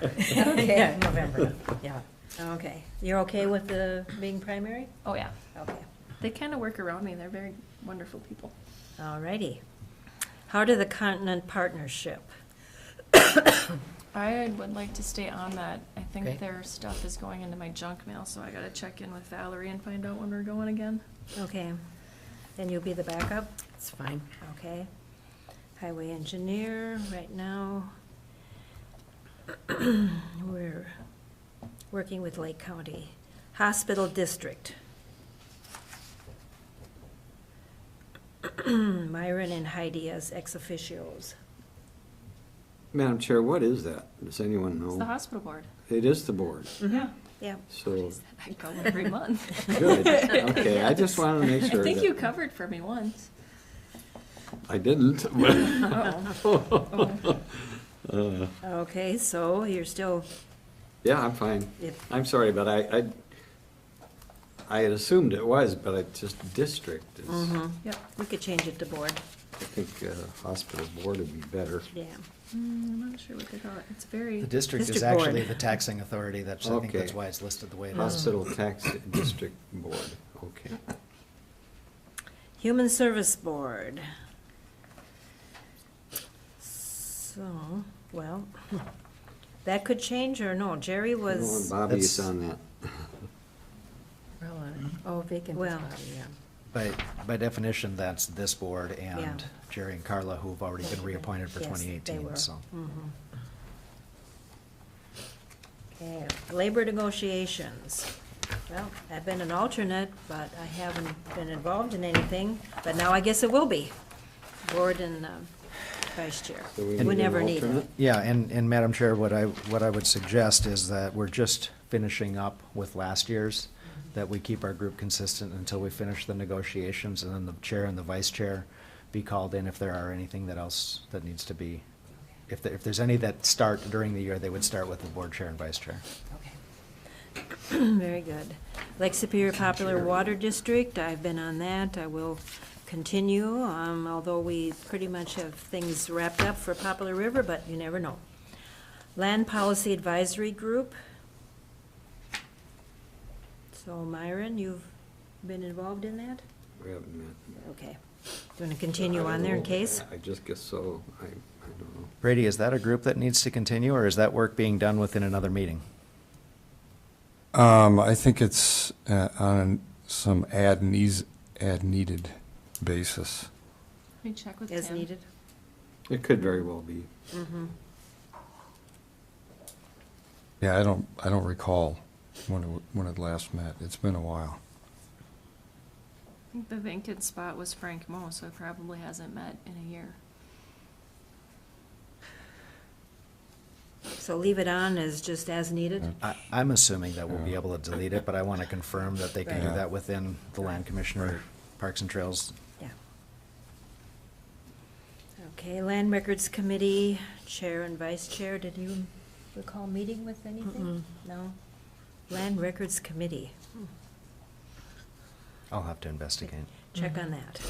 Okay. Yeah, November, yeah. Okay, you're okay with the being primary? Oh, yeah. Okay, They kind of work around me. They're very wonderful people. all righty. Heart of the Continent Partnership. I would like to stay on that. I think Great. their stuff is going into my junk mail, so I gotta check in with Valerie and find out when we're going again. Okay, and you'll be the backup? It's fine. Okay. Highway engineer, right now, we're working with Lake County. Hospital district. Myron and Heidi as ex officios. Madam Chair, what is that? Does anyone It's the know? hospital board. It is the board, Yeah. Yeah, so, I go every month. good, okay, I just wanted to make I sure. think that- you covered for me once. I didn't. Uh-oh. Oh, okay, so you're still, Yeah, I'm fine. if, I'm sorry, but I, I, I had assumed it was, but it just district is, I Yep. we could change it to board, think uh, hospital board would be better. yeah. Mm, I'm not sure what they call it. It's very, The district is District board. actually the taxing authority, that's, I think that's Okay. why it's listed the way it is. Hospital Mm. tax district board, okay. Human Service Board. So, well, that could change or no, Jerry I don't want was, Bobby is That's- on that. Oh, Mm-hmm. vacant Well. By, by definition, that's this board Yeah. and Jerry and Carla, who have already been reappointed for Yes, they 2018, were. Mm-hmm. so. okay, Labor Negotiations. Well, I've been an alternate, but I haven't been involved in anything, but now I guess it will be. Board and um, Vice Chair, So we need we an never need it. alternate? Yeah, and, and Madam Chair, what I, what I would suggest is that we're just finishing up with last year's, Mm-hmm. that we keep our group consistent until we finish the negotiations, and then the chair and the vice chair be called in if there are anything that else that needs to be. If, there- if there's any that start during the year, they would start with the board chair and vice chair. Very good. Lake Superior Popular Water District, I've been on that, I will continue, um, although we pretty much have things wrapped up for Popular River, but you never know. Land Policy Advisory Group. So Myron, you've been involved in that? We haven't met. Okay. Do you want to continue on there in case? I just guess so, I, I don't know. Brady, is that a group that needs to continue, or is that work being done within another meeting? Um, I think it's uh, on some ad needs, ad needed basis. let me check with Tim. As needed? Mm-hmm. It could very well be. Yeah, I don't, I don't recall when it, wa- when it last met. It's been a while. I think the vacant spot was Frank Mo, so it probably hasn't met in a year. So leave it on as just as needed? I, I'm assuming that we'll be Yeah. able to delete it, but I want to confirm that they can do Right. that within the land commissioner, Parks and Trails. Yeah. Okay, Land Records Committee, Chair and Vice Chair, did you recall meeting with anything? No? Land Records Committee, I'll have to investigate. check on that.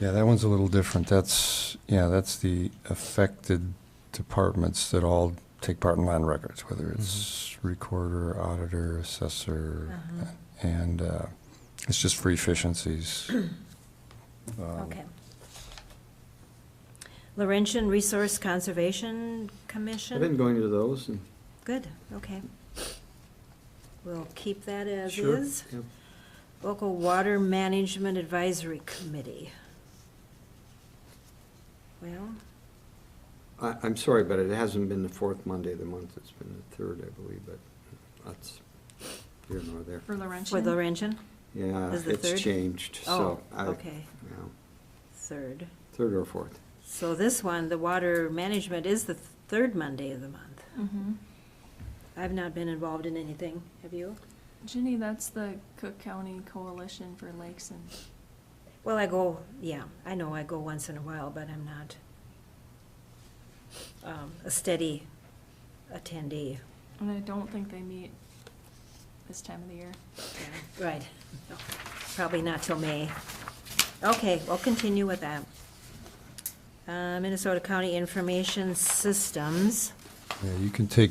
Yeah, that one's a little different. That's, yeah, that's the affected departments that all take part in land records, whether Mm-hmm. it's recorder, auditor, assessor, Uh-huh. and uh, it's just for efficiencies. Um, Okay. Laurentian Resource Conservation Commission? I've been going to those and. Good, okay. We'll keep that as Sure, is. yep. Local Water Management Advisory Committee. Well, I, I'm sorry, but it hasn't been the fourth Monday of the month, it's been the third, I believe, but that's here nor there. For Laurentian? for Laurentian? Yeah, Is the third? it's changed, so. Oh, I- okay. yeah, Third. Third or fourth. So this one, the water management is the third Monday of the month. Mm-hmm. I've not been involved in anything, have you? Ginny, that's the Cook County Coalition for Lakes and, Well, I go, yeah, I know I go once in a while, but I'm not um, a steady attendee. and I don't think they meet this time of the year. Yeah, Right. No, Probably not till May. Okay, we'll continue with that. Uh, Minnesota County Information Systems. Yeah, you can take